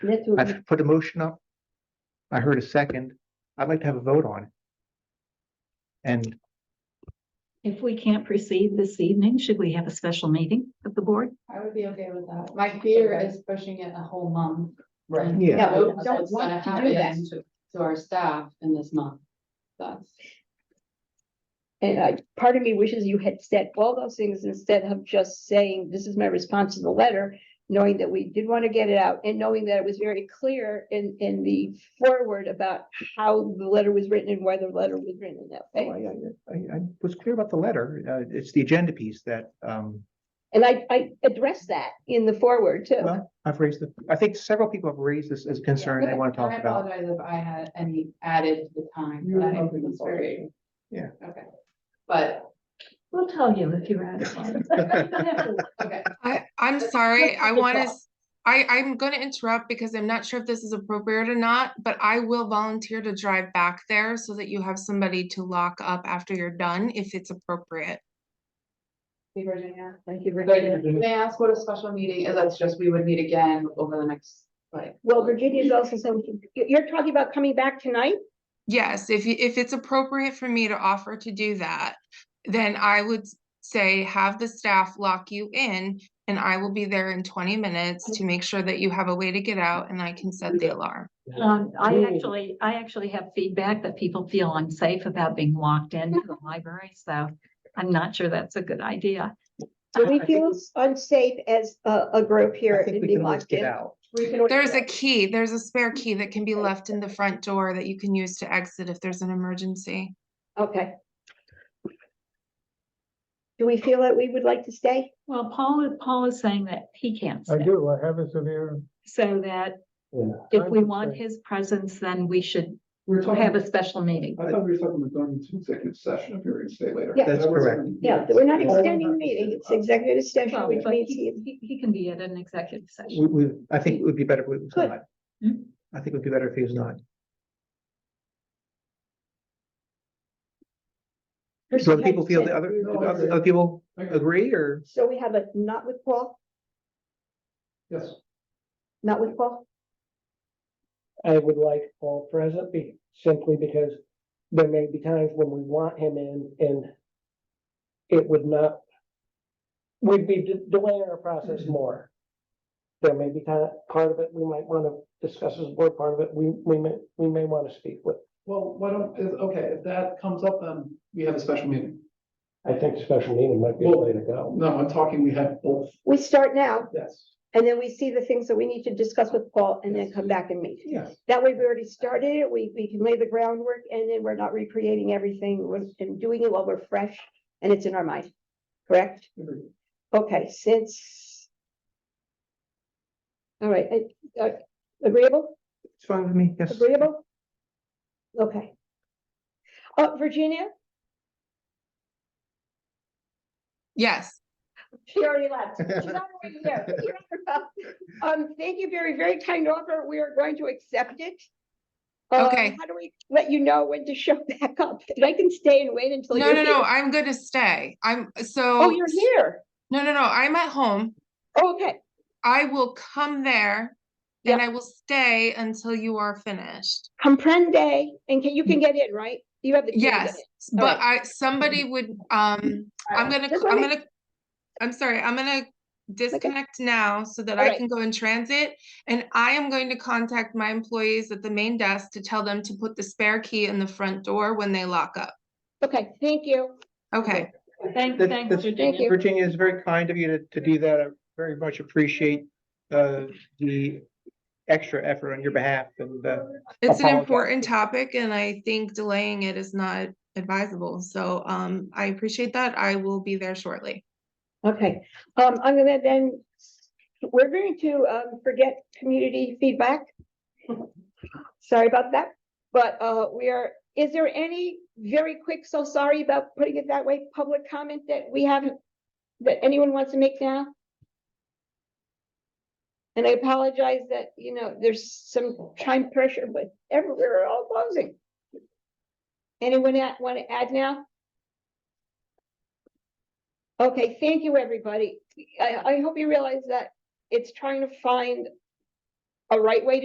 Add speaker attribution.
Speaker 1: That's what,
Speaker 2: I've put a motion up. I heard a second. I'd like to have a vote on it. And
Speaker 3: If we can't proceed this evening, should we have a special meeting of the board?
Speaker 4: I would be okay with that. My fear is pushing it a whole month.
Speaker 5: Right.
Speaker 2: Yeah.
Speaker 1: Yeah, we
Speaker 4: What-
Speaker 1: don't
Speaker 4: what's
Speaker 1: want
Speaker 4: gonna
Speaker 1: to do that.
Speaker 4: happen To to our staff in this month. That's,
Speaker 1: and I, part of me wishes you had said all those things instead of just saying, this is my response to the letter. Knowing that we did want to get it out and knowing that it was very clear in, in the forward about how the letter was written and why the letter was written in that
Speaker 2: I,
Speaker 1: way.
Speaker 2: I, I was clear about the letter. Uh, it's the agenda piece that, um,
Speaker 1: And I, I addressed that in the forward too.
Speaker 2: well, I've raised the, I think several people have raised this as a concern they want to
Speaker 4: I
Speaker 2: talk about.
Speaker 4: apologize if I had any added to the time.
Speaker 5: You're
Speaker 4: but I
Speaker 5: welcome to
Speaker 4: was very-
Speaker 2: Yeah.
Speaker 4: Okay, but,
Speaker 3: We'll tell you if you're out of line.
Speaker 4: okay,
Speaker 6: I, I'm
Speaker 4: Let's-
Speaker 6: sorry,
Speaker 4: let's
Speaker 6: I
Speaker 4: take a
Speaker 6: want to,
Speaker 4: vote.
Speaker 6: I, I'm going to interrupt because I'm not sure if this is appropriate or not, but I will volunteer to drive back there so that you have somebody to lock up after you're done, if it's appropriate.
Speaker 4: see Virginia.
Speaker 1: Thank you,
Speaker 4: But may I ask what a special meeting is? That's just, we would meet again over the next, like.
Speaker 1: Well, Virginia's also saying, you- you're talking about coming back tonight?
Speaker 6: Yes, if, you- if it's appropriate for me to offer to do that, then I would s- say have the staff lock you in and I will be there in twenty minutes to make sure that you have a way to get out and I can set the alarm.
Speaker 3: Um, I actually, I actually have feedback that people feel unsafe about being locked into the library, so I'm not sure that's a good idea.
Speaker 1: Do we
Speaker 2: I think-
Speaker 1: feel unsafe as a, a group here
Speaker 2: I
Speaker 1: in
Speaker 2: think we
Speaker 1: being
Speaker 2: can always
Speaker 1: locked
Speaker 2: get
Speaker 1: in?
Speaker 2: out.
Speaker 1: We can always
Speaker 6: There's a
Speaker 1: get out.
Speaker 6: key, there's a
Speaker 1: Mm-hmm.
Speaker 6: spare key that can be left in the front door that you can use to exit if there's an emergency.
Speaker 1: Okay. Do we feel that we would like to stay?
Speaker 3: Well, Paul, is- Paul is saying that he can't
Speaker 7: I
Speaker 3: stay,
Speaker 7: do, I have a severe.
Speaker 3: so that
Speaker 7: Yeah.
Speaker 3: if we want his presence, then we should
Speaker 5: We're
Speaker 3: have a special meeting.
Speaker 5: I thought we were talking about going into executive session if you were gonna stay later.
Speaker 1: Yeah.
Speaker 2: That's
Speaker 5: That was-
Speaker 2: correct.
Speaker 1: Yeah, we're not
Speaker 5: Yeah, we're
Speaker 1: extending the
Speaker 5: not
Speaker 1: meeting, it's
Speaker 5: extending.
Speaker 1: executive session,
Speaker 3: Well,
Speaker 1: which
Speaker 3: but
Speaker 1: means
Speaker 3: he,
Speaker 1: he,
Speaker 3: he- he can be at an executive session.
Speaker 2: We, we, I think it would be better if it was
Speaker 1: Good.
Speaker 2: not.
Speaker 3: Hmm?
Speaker 2: I think it would be better if he was not. So other people feel the other,
Speaker 5: No, I
Speaker 2: other
Speaker 5: agree.
Speaker 2: other people
Speaker 5: Okay.
Speaker 2: agree or?
Speaker 1: So we have a not with Paul,
Speaker 5: Yes,
Speaker 1: not with Paul?
Speaker 8: I would like Paul present be, simply because there may be times when we want him in and it would not, we'd be de- delaying our process more. There may be kind part of it, we might want to discuss as a board, part of it, we, we may, we may want to speak with.
Speaker 5: well, why don't, is, okay, if that comes up, then we have a special meeting.
Speaker 8: I think special meeting might be the way to go.
Speaker 5: No, I'm talking, we have both,
Speaker 1: We start now,
Speaker 5: yes,
Speaker 1: and then we see the things that we need to discuss with Paul, and then come back and meet.
Speaker 5: yes.
Speaker 1: That way, we already started it, we, we can lay the groundwork, and then we're not recreating everything, we're, and doing it while we're fresh, and it's in our mind, correct?
Speaker 5: Agreed.
Speaker 1: Okay, since. All right, uh, uh, agreeable,
Speaker 2: It's fine with me, yes.
Speaker 1: agreeable? Okay. Uh, Virginia,
Speaker 6: Yes.
Speaker 1: she already left. She's not already here. You're not here. Um, thank you very, very kind offer. We are going to accept it. Um,
Speaker 6: Okay.
Speaker 1: How do we let you know when to show back up? And I can stay and wait until.
Speaker 6: No,
Speaker 1: you're
Speaker 6: no, no,
Speaker 1: here.
Speaker 6: I'm gonna stay. I'm, so.
Speaker 1: Oh, you're here. Oh,
Speaker 6: No, no, no, I'm at home.
Speaker 1: Okay,
Speaker 6: I will come there
Speaker 1: Yep.
Speaker 6: and I will stay until you are finished.
Speaker 1: comprende, and can, you can get in, right? You have the. key to get
Speaker 6: Mm. Yes,
Speaker 1: in.
Speaker 6: s- but I, somebody would, um, I'm gonna,
Speaker 1: Just
Speaker 6: c- I'm
Speaker 1: wanna-
Speaker 6: gonna, I'm sorry, I'm gonna disconnect now so that I
Speaker 1: Alright.
Speaker 6: can go in transit. And I am going to contact my employees at the main desk to tell them to put the spare key in the front door when they lock up.
Speaker 1: Okay, thank you.
Speaker 6: Okay.
Speaker 3: Thank,
Speaker 2: That-
Speaker 3: thanks,
Speaker 2: that's-
Speaker 3: Virginia.
Speaker 1: you.
Speaker 2: Virginia, it's very kind of you to, to do that. I very much appreciate, uh, the extra effort on your behalf and, uh,
Speaker 6: It's an
Speaker 2: Apologize.
Speaker 6: important topic and I think delaying it is not advisable. So, um, I appreciate that. I will be there shortly.
Speaker 1: Okay, um, I'm gonna then, we're going to, um, forget community feedback. Sorry about that, but, uh, we are, is there any very quick, so sorry about putting it that way, public comment that we haven't, that anyone wants to make now? And I apologize that, you know, there's some time pressure, but everywhere are all closing. Anyone want to add now? Okay, thank you, everybody. I, I hope you realize that it's trying to find a right way